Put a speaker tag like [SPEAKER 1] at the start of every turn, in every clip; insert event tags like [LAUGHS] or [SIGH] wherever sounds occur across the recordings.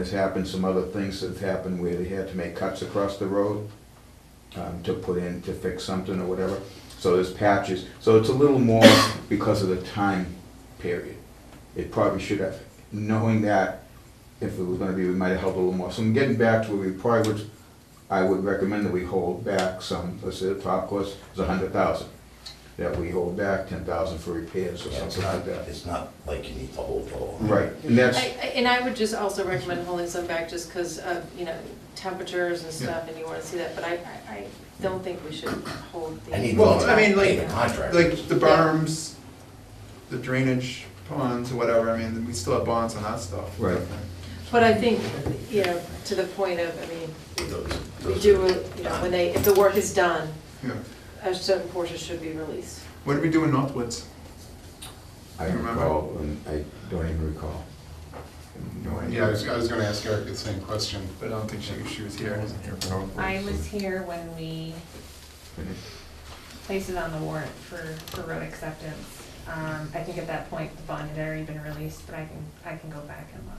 [SPEAKER 1] has happened, some other things that have happened where they had to make cuts across the road um, to put in, to fix something or whatever. So there's patches, so it's a little more because of the time period. It probably should have, knowing that, if it was gonna be, we might have helped a little more. So I'm getting back to where we probably would, I would recommend that we hold back some, let's say the top cost is a hundred thousand. That we hold back ten thousand for repairs or
[SPEAKER 2] Yeah, it's
[SPEAKER 1] something like
[SPEAKER 2] not,
[SPEAKER 1] that.
[SPEAKER 2] it's not like you need to hold the whole.
[SPEAKER 1] Right, and that's.
[SPEAKER 3] I- I- And I would just also recommend holding some back just because of, you know, temperatures and stuff, and you want to see that, but I, I I don't think we should hold the.
[SPEAKER 2] Any
[SPEAKER 4] Well,
[SPEAKER 2] loan,
[SPEAKER 4] I mean, like-
[SPEAKER 2] the contract.
[SPEAKER 4] Like the berms, the drainage ponds, or whatever, I mean, we still have bonds on that stuff.
[SPEAKER 1] Right.
[SPEAKER 3] But I think, you know, to the point of, I mean,
[SPEAKER 2] Those-
[SPEAKER 3] we
[SPEAKER 2] those
[SPEAKER 3] do,
[SPEAKER 2] are
[SPEAKER 3] you know, when
[SPEAKER 2] done.
[SPEAKER 3] they, if the work is done,
[SPEAKER 4] Yeah.
[SPEAKER 3] a certain portion should be released.
[SPEAKER 4] What did we do in Northwoods?
[SPEAKER 1] I don't
[SPEAKER 4] Remember?
[SPEAKER 1] recall, and I don't even recall. No
[SPEAKER 5] Yeah, I was, I was gonna ask Eric the same question.
[SPEAKER 4] But I don't think she, she was here.
[SPEAKER 6] I was here when we placed it on the warrant for, for road acceptance. Um, I think at that point, the bond had already been released, but I can, I can go back and look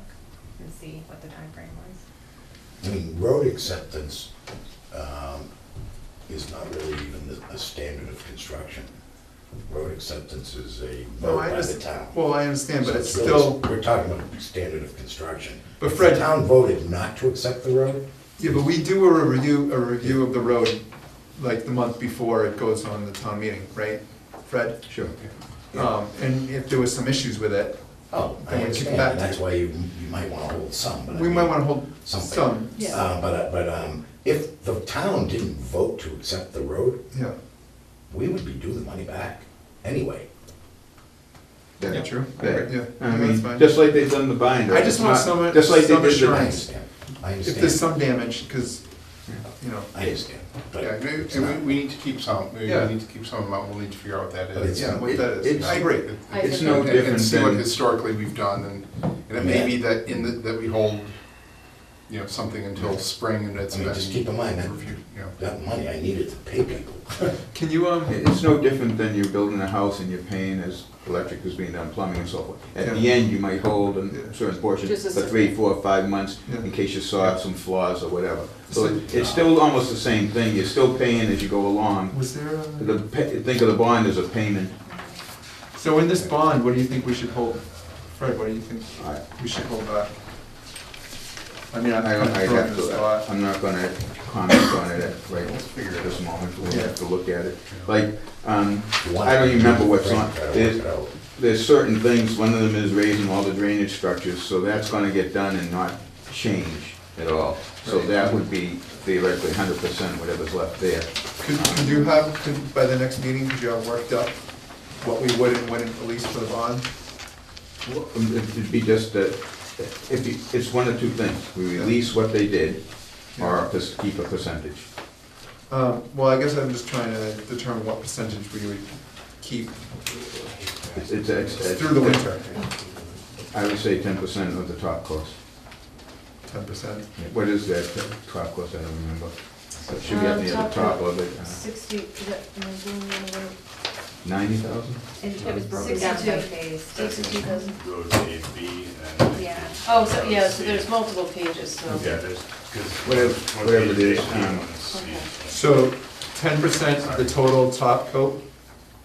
[SPEAKER 6] and see what the timeframe was.
[SPEAKER 2] I mean, road acceptance um, is not really even the- a standard of construction. Road acceptance is a vote
[SPEAKER 4] No, I
[SPEAKER 2] by the
[SPEAKER 4] understand.
[SPEAKER 2] town.
[SPEAKER 4] Well, I understand, but
[SPEAKER 2] So
[SPEAKER 4] it's
[SPEAKER 2] really-
[SPEAKER 4] still,
[SPEAKER 2] We're talking about standard of construction.
[SPEAKER 4] But
[SPEAKER 2] If
[SPEAKER 4] Fred-
[SPEAKER 2] The town voted not to accept the road,
[SPEAKER 4] yeah, but we do a review, a review of the road, like the month before it goes on the town meeting, right, Fred?
[SPEAKER 1] Sure.
[SPEAKER 4] Um, and if there was some issues with it,
[SPEAKER 2] oh,
[SPEAKER 4] Then
[SPEAKER 2] I
[SPEAKER 4] we kick
[SPEAKER 2] understand,
[SPEAKER 4] back.
[SPEAKER 2] and that's why you, you might wanna hold some, but I
[SPEAKER 4] we
[SPEAKER 2] mean-
[SPEAKER 4] might wanna hold
[SPEAKER 2] Something.
[SPEAKER 4] some,
[SPEAKER 3] Yeah.
[SPEAKER 2] Uh, but, uh, but, um, if the town didn't vote to accept the road,
[SPEAKER 4] yeah,
[SPEAKER 2] we would be due the money back anyway.
[SPEAKER 4] yeah, true,
[SPEAKER 1] That-
[SPEAKER 4] yeah,
[SPEAKER 1] I
[SPEAKER 4] that's
[SPEAKER 1] mean,
[SPEAKER 4] fine.
[SPEAKER 1] just like they've done the binder.
[SPEAKER 4] I just want
[SPEAKER 1] It's not-
[SPEAKER 4] some-
[SPEAKER 1] Just like they did
[SPEAKER 4] some
[SPEAKER 1] the.
[SPEAKER 2] I
[SPEAKER 4] assurance.
[SPEAKER 2] understand, I
[SPEAKER 4] If there's
[SPEAKER 2] understand,
[SPEAKER 4] some damage, cause, you know,
[SPEAKER 2] I understand, but
[SPEAKER 5] Yeah, maybe-
[SPEAKER 2] it's
[SPEAKER 5] and
[SPEAKER 2] not,
[SPEAKER 5] we, we need to keep some, we
[SPEAKER 4] Yeah.
[SPEAKER 5] we need to keep some amount, we'll need to figure out what that
[SPEAKER 2] But
[SPEAKER 5] is.
[SPEAKER 2] it's-
[SPEAKER 4] yeah, what that is.
[SPEAKER 1] It's-
[SPEAKER 4] I agree.
[SPEAKER 1] It's no
[SPEAKER 5] And-
[SPEAKER 1] different
[SPEAKER 5] And see what
[SPEAKER 1] than-
[SPEAKER 5] historically we've done, and, and it may be that in the, that we hold, you know, something until spring and it's.
[SPEAKER 2] I mean, just
[SPEAKER 5] been
[SPEAKER 2] keep in mind that-
[SPEAKER 5] reviewed, you know.
[SPEAKER 2] that money I needed to pay people.
[SPEAKER 4] Can you, um,
[SPEAKER 1] It's no different than you're building a house and you're paying as electric is being done, plumbing and so forth. At the
[SPEAKER 4] Yeah.
[SPEAKER 1] end, you might hold a certain portion
[SPEAKER 3] Just a
[SPEAKER 1] for
[SPEAKER 3] certain-
[SPEAKER 1] three, four, five months
[SPEAKER 4] Yeah.
[SPEAKER 1] in case you saw some flaws or whatever. So
[SPEAKER 4] So-
[SPEAKER 1] it's still almost the same thing. You're still paying as you go along.
[SPEAKER 4] was there uh, a?
[SPEAKER 1] The, pa- think of the bond as a payment.
[SPEAKER 4] So in this bond, what do you think we should hold? Fred, what do you think
[SPEAKER 1] I-
[SPEAKER 4] we should hold back? I mean, I'm
[SPEAKER 1] I
[SPEAKER 4] kind
[SPEAKER 1] don't,
[SPEAKER 4] of
[SPEAKER 1] I
[SPEAKER 4] throwing
[SPEAKER 1] have
[SPEAKER 4] this
[SPEAKER 1] to,
[SPEAKER 4] thought.
[SPEAKER 1] I'm not gonna comment on it at, right, at this moment, we'll have to look at it. Like, um, I don't even remember what's on, there's, there's certain things, one of them is raising all the drainage structures, so that's gonna get done and not change at all. So
[SPEAKER 4] Right.
[SPEAKER 1] that would be theoretically hundred percent whatever's left there.
[SPEAKER 4] Could, could you have, could, by the next meeting, could you have worked up what we would and wouldn't release for the bond?
[SPEAKER 1] Um, It'd be just that, if you, it's one of two things, we release what they did, or just keep a percentage.
[SPEAKER 4] Um, well, I guess I'm just trying to determine what percentage we would keep
[SPEAKER 1] It's, it's, it's.
[SPEAKER 4] through the winter,
[SPEAKER 1] I would say ten percent of the top cost.
[SPEAKER 4] ten percent.
[SPEAKER 1] What is that uh, top cost? I don't remember. It should be at the
[SPEAKER 3] Um,
[SPEAKER 1] other
[SPEAKER 3] top
[SPEAKER 1] top of it. uh,
[SPEAKER 6] Sixty, is it,
[SPEAKER 1] Ninety thousand?
[SPEAKER 6] it was broken down by phase.
[SPEAKER 7] Roads A and B and.
[SPEAKER 6] Yeah.
[SPEAKER 3] Oh, so, yeah, so there's multiple pages, so.
[SPEAKER 7] Yeah, there's, because.
[SPEAKER 1] Whatever- whatever it is, um,
[SPEAKER 4] So ten percent of the total top coat?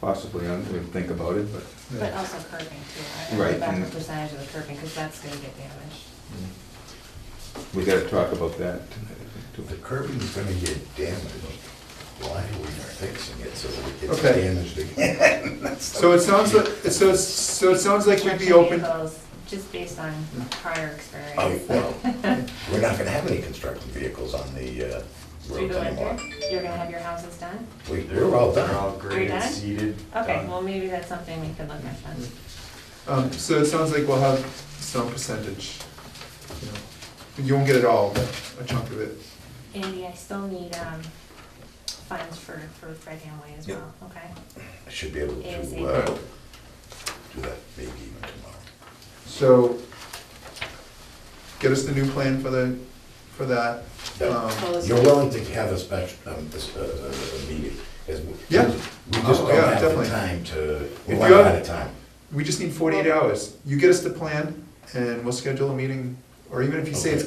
[SPEAKER 1] Possibly, I would think about it, but.
[SPEAKER 6] But also curbing too. I- I
[SPEAKER 1] Right,
[SPEAKER 6] went back
[SPEAKER 1] and-
[SPEAKER 6] a percentage of the curbing, because that's gonna get damaged.
[SPEAKER 1] We gotta talk about that tonight, I
[SPEAKER 2] If
[SPEAKER 1] think,
[SPEAKER 2] the
[SPEAKER 1] too.
[SPEAKER 2] curbing's gonna get damaged, why are we fixing it so it gets
[SPEAKER 4] Okay.
[SPEAKER 2] damaged again? That's
[SPEAKER 4] So it sounds like, so, it's- so it sounds like we'd be open.
[SPEAKER 6] Vehicles, Just based on prior experience.
[SPEAKER 2] Oh, well,
[SPEAKER 6] [LAUGHS]
[SPEAKER 2] we're not gonna have any construction vehicles on the uh,
[SPEAKER 6] Through
[SPEAKER 2] roads
[SPEAKER 6] the
[SPEAKER 2] anymore.
[SPEAKER 6] winter, you're gonna have your houses done?
[SPEAKER 2] We- We're all
[SPEAKER 7] They're
[SPEAKER 2] done.
[SPEAKER 7] all graded,
[SPEAKER 6] done?
[SPEAKER 7] seeded.
[SPEAKER 6] Okay,
[SPEAKER 7] done.
[SPEAKER 6] well, maybe that's something we could look at then.
[SPEAKER 4] Um, so it sounds like we'll have some percentage, you know, you won't get it all, but a chunk of it.
[SPEAKER 6] Andy, I still need, um, funds for, for Fred Hamway as well, okay?
[SPEAKER 2] I should be able to
[SPEAKER 6] ASAP.
[SPEAKER 2] uh, do that maybe even tomorrow.
[SPEAKER 4] So, get us the new plan for the, for that.
[SPEAKER 3] Well,
[SPEAKER 4] Um,
[SPEAKER 3] it's-
[SPEAKER 2] You're willing to have a special, um, this, uh, uh, uh, meeting? 'cause we-
[SPEAKER 4] Yeah.
[SPEAKER 2] We just
[SPEAKER 4] Oh,
[SPEAKER 2] don't
[SPEAKER 4] yeah,
[SPEAKER 2] have the
[SPEAKER 4] definitely.
[SPEAKER 2] time to,
[SPEAKER 4] If
[SPEAKER 2] we're
[SPEAKER 4] you
[SPEAKER 2] running
[SPEAKER 4] have-
[SPEAKER 2] out of time.
[SPEAKER 4] We just need forty-eight hours. You get us the plan and we'll schedule a meeting, or even if you say it's